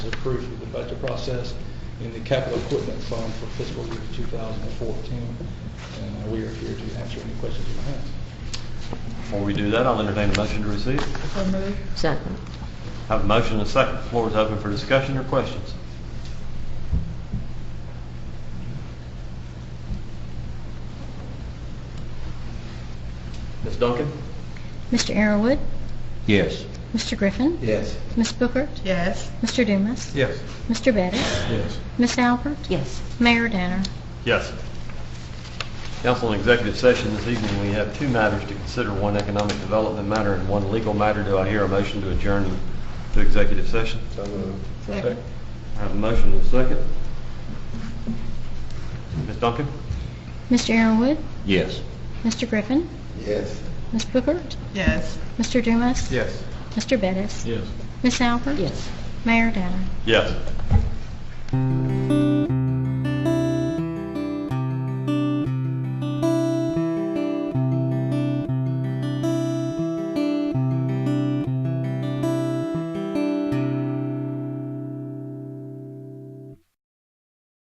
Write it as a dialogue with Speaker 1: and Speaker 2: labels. Speaker 1: approved through the budget process in the capital equipment fund for fiscal year 2014. And uh, we are here to answer any questions you may have.
Speaker 2: Before we do that, I'll entertain a motion to receive.
Speaker 3: So moved.
Speaker 4: Second.
Speaker 2: Have a motion and a second. The Floor is open for discussion or questions.
Speaker 5: Ms. Duncan?
Speaker 6: Mr. Arrowood,
Speaker 5: Yes.
Speaker 6: Mr. Griffin,
Speaker 5: Yes.
Speaker 6: Ms. Bookert,
Speaker 3: Yes.
Speaker 6: Mr. Dumas,
Speaker 5: Yes.
Speaker 6: Mr. Bettis,
Speaker 5: Yes.
Speaker 6: Ms. Albert,
Speaker 4: Yes.
Speaker 6: Mayor Danner.
Speaker 2: Yes. Council, in executive session this evening, we have two matters to consider, one economic development matter and one legal matter. Do I hear a motion to adjourn to executive session?
Speaker 5: So moved.
Speaker 3: Second.
Speaker 2: I have a motion and a second. Ms. Duncan?
Speaker 6: Mr. Arrowood,
Speaker 5: Yes.
Speaker 6: Mr. Griffin,
Speaker 5: Yes.
Speaker 6: Ms. Bookert,
Speaker 3: Yes.
Speaker 6: Mr. Dumas,
Speaker 5: Yes.
Speaker 6: Mr. Bettis,
Speaker 5: Yes.
Speaker 6: Ms. Albert,
Speaker 4: Yes.
Speaker 6: Mayor Danner.
Speaker 2: Yes.